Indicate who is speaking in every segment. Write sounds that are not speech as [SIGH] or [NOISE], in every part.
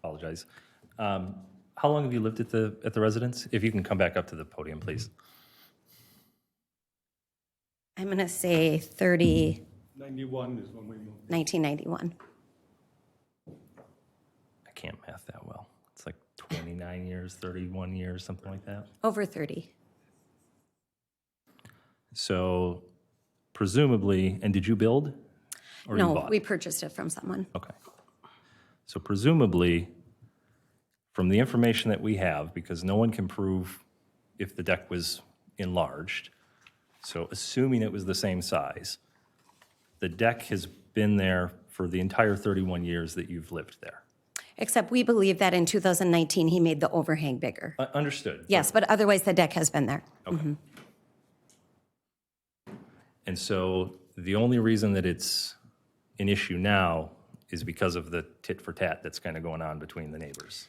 Speaker 1: apologize. Um, How long have you lived at the, at the residence? If you can come back up to the podium,
Speaker 2: Mm-hmm.
Speaker 1: please.
Speaker 2: I'm going to say 30,
Speaker 3: 91 is when we moved.
Speaker 2: 1991.
Speaker 1: I can't math that well. It's like 29 years, 31 years, something like that.
Speaker 2: Over 30.
Speaker 1: So presumably, and did you build? or you
Speaker 2: No,
Speaker 1: bought?
Speaker 2: we purchased it from someone.
Speaker 1: Okay. So presumably, from the information that we have, because no one can prove if the deck was enlarged, so assuming it was the same size, the deck has been there for the entire 31 years that you've lived there.
Speaker 2: Except we believe that in 2019, he made the overhang bigger.
Speaker 1: U- Understood.
Speaker 2: Yes, but otherwise, the deck has been there.
Speaker 1: And so the only reason that it's an issue now is because of the tit-for-tat that's kind of going on between the neighbors.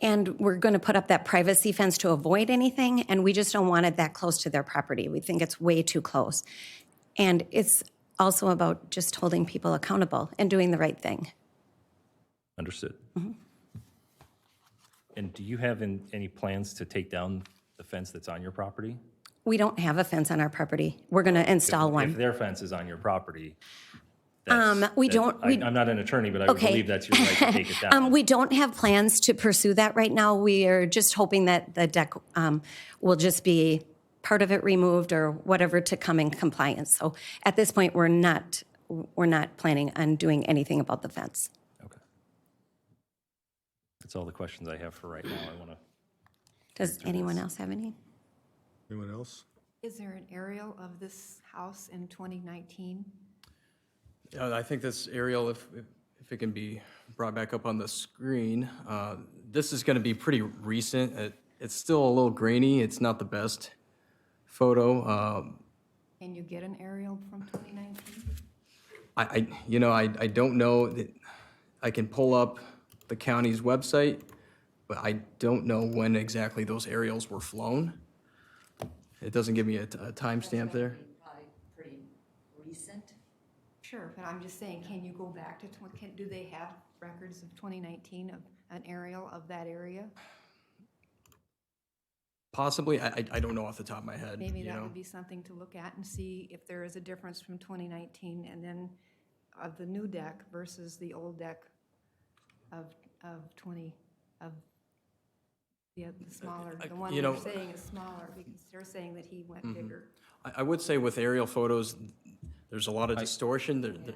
Speaker 2: And we're going to put up that privacy fence to avoid anything, and we just don't want it that close to their property. We think it's way too close. And it's also about just holding people accountable and doing the right thing.
Speaker 1: Understood.
Speaker 2: Mm-hmm.
Speaker 1: And do you have in- any plans to take down the fence that's on your property?
Speaker 2: We don't have a fence on our property. We're going to install
Speaker 1: If
Speaker 2: one.
Speaker 1: their fence is on your property, that's...
Speaker 2: Um, we
Speaker 1: that-
Speaker 2: don't-
Speaker 1: I-
Speaker 2: we-
Speaker 1: I'm not an attorney, but I would
Speaker 2: Okay.
Speaker 1: believe that's your right to take
Speaker 2: [LAUGHS]
Speaker 1: it
Speaker 2: Um,
Speaker 1: down.
Speaker 2: We don't have plans to pursue that right now. We are just hoping that the deck um, will just be part of it removed or whatever to come in compliance. So at this point, we're not, we're not planning on doing anything about the fence.
Speaker 1: Okay. That's all the questions I have for right now. I want to,
Speaker 2: Does anyone else have any?
Speaker 3: Anyone else?
Speaker 4: Is there an aerial of this house in 2019?
Speaker 5: Yeah, Uh, I think this aerial, if, if- if it can be brought back up on the screen, uh, this is going to be pretty recent. It- It's still a little grainy. It's not the best photo. Um,
Speaker 4: Can you get an aerial from 2019?
Speaker 5: I, I, you know, I, I don't know. that- I can pull up the county's website, but I don't know when exactly those aerials were flown. It doesn't give me a t- a timestamp there.
Speaker 6: probably pretty recent.
Speaker 4: Sure, but I'm just saying, can you go back to, twen- can- do they have records of 2019 of an aerial of that area?
Speaker 5: Possibly, I, I- I don't know off the top of my head.
Speaker 4: Maybe
Speaker 5: you
Speaker 4: that
Speaker 5: know.
Speaker 4: would be something to look at and see if there is a difference from 2019 and then of the new deck versus the old deck of, of 20, of the oth- the smaller, the
Speaker 5: Uh,
Speaker 4: one
Speaker 5: you
Speaker 4: you're
Speaker 5: know- Mm-hmm.
Speaker 4: saying is smaller because they're saying that he went bigger.
Speaker 5: I, I would say with aerial photos, there's a lot of distortion. There, there-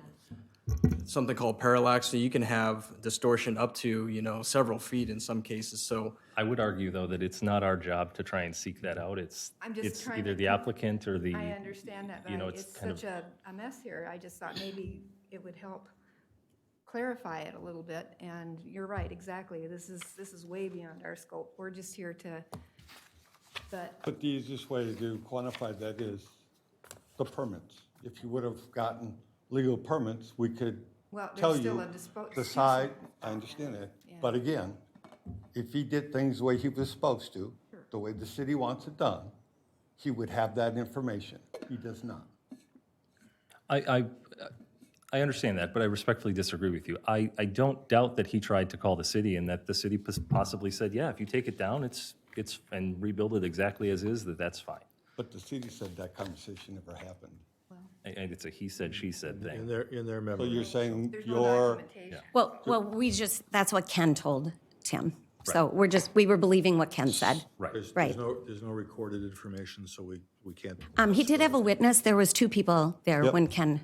Speaker 5: something called parallax, so you can have distortion up to, you know, several feet in some cases. So
Speaker 1: I would argue, though, that it's not our job to try and seek that out. It's,
Speaker 4: I'm just
Speaker 1: it's
Speaker 4: trying
Speaker 1: either
Speaker 4: to-
Speaker 1: the applicant or the...
Speaker 4: I understand that, but
Speaker 1: you know,
Speaker 4: I-
Speaker 1: it's
Speaker 4: it's
Speaker 1: kind of-
Speaker 4: such a, a mess here. I just thought maybe it would help clarify it a little bit. And you're right, exactly. This is, this is way beyond our scope. We're just here to, but
Speaker 3: But the easiest way to quantify that is the permits. If you would have gotten legal permits, we could
Speaker 4: Well, there's
Speaker 3: tell
Speaker 4: still
Speaker 3: you
Speaker 4: a dispo-
Speaker 3: the
Speaker 4: excuse
Speaker 3: side,
Speaker 4: me.
Speaker 3: I understand that. But again, if he did things the way he was supposed to, the way the city wants it done, he would have that information. He does not.
Speaker 1: I, I, I understand that, but I respectfully disagree with you. I, I don't doubt that he tried to call the city and that the city pos- possibly said, yeah, if you take it down, it's, it's, and rebuild it exactly as is, that that's fine.
Speaker 3: But the city said that conversation never happened.
Speaker 1: And- And it's a he said, she said
Speaker 7: In
Speaker 1: thing.
Speaker 7: their, in their
Speaker 3: So
Speaker 7: memory.
Speaker 3: you're saying
Speaker 4: there's no
Speaker 3: your,
Speaker 4: documentation.
Speaker 2: Well, well, we just, that's what Ken told Tim. So we're just, we were believing what Ken said.
Speaker 1: Right.
Speaker 7: There's-
Speaker 2: Right.
Speaker 7: There's no, there's no recorded information, so we, we can't.
Speaker 2: Um, he did have a witness. There was two people there
Speaker 3: Yep.
Speaker 2: when Ken,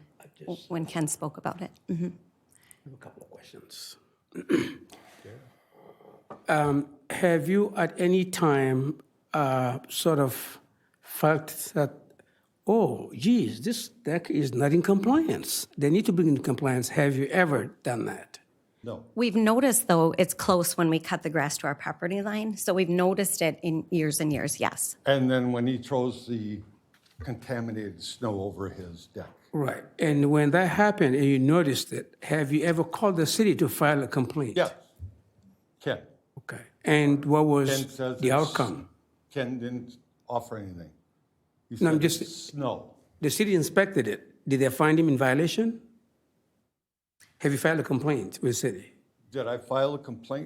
Speaker 2: when Ken spoke about it. Mhm.
Speaker 8: have a couple of questions. [CLEARS THROAT] Um, Have you at any time uh, sort of felt that, oh, geez, this deck is not in compliance? They need to bring in compliance. Have you ever done that?
Speaker 3: no,
Speaker 2: We've noticed, though, it's close when we cut the grass to our property line, so we've noticed it in years and years, yes.
Speaker 3: And then when he throws the contaminated snow over his deck.
Speaker 8: Right. And when that happened and you noticed it, have you ever called the city to file a complaint?
Speaker 3: Yes. Ken,
Speaker 8: Okay. And what
Speaker 3: Ken
Speaker 8: was
Speaker 3: says.
Speaker 8: the
Speaker 3: it's-
Speaker 8: outcome?
Speaker 3: Ken didn't offer anything. He
Speaker 8: No, I'm
Speaker 3: said it's
Speaker 8: just-
Speaker 3: Snow.
Speaker 8: The city inspected it. Did they find him in violation? Have you filed a complaint with the city?
Speaker 3: Did I file a complaint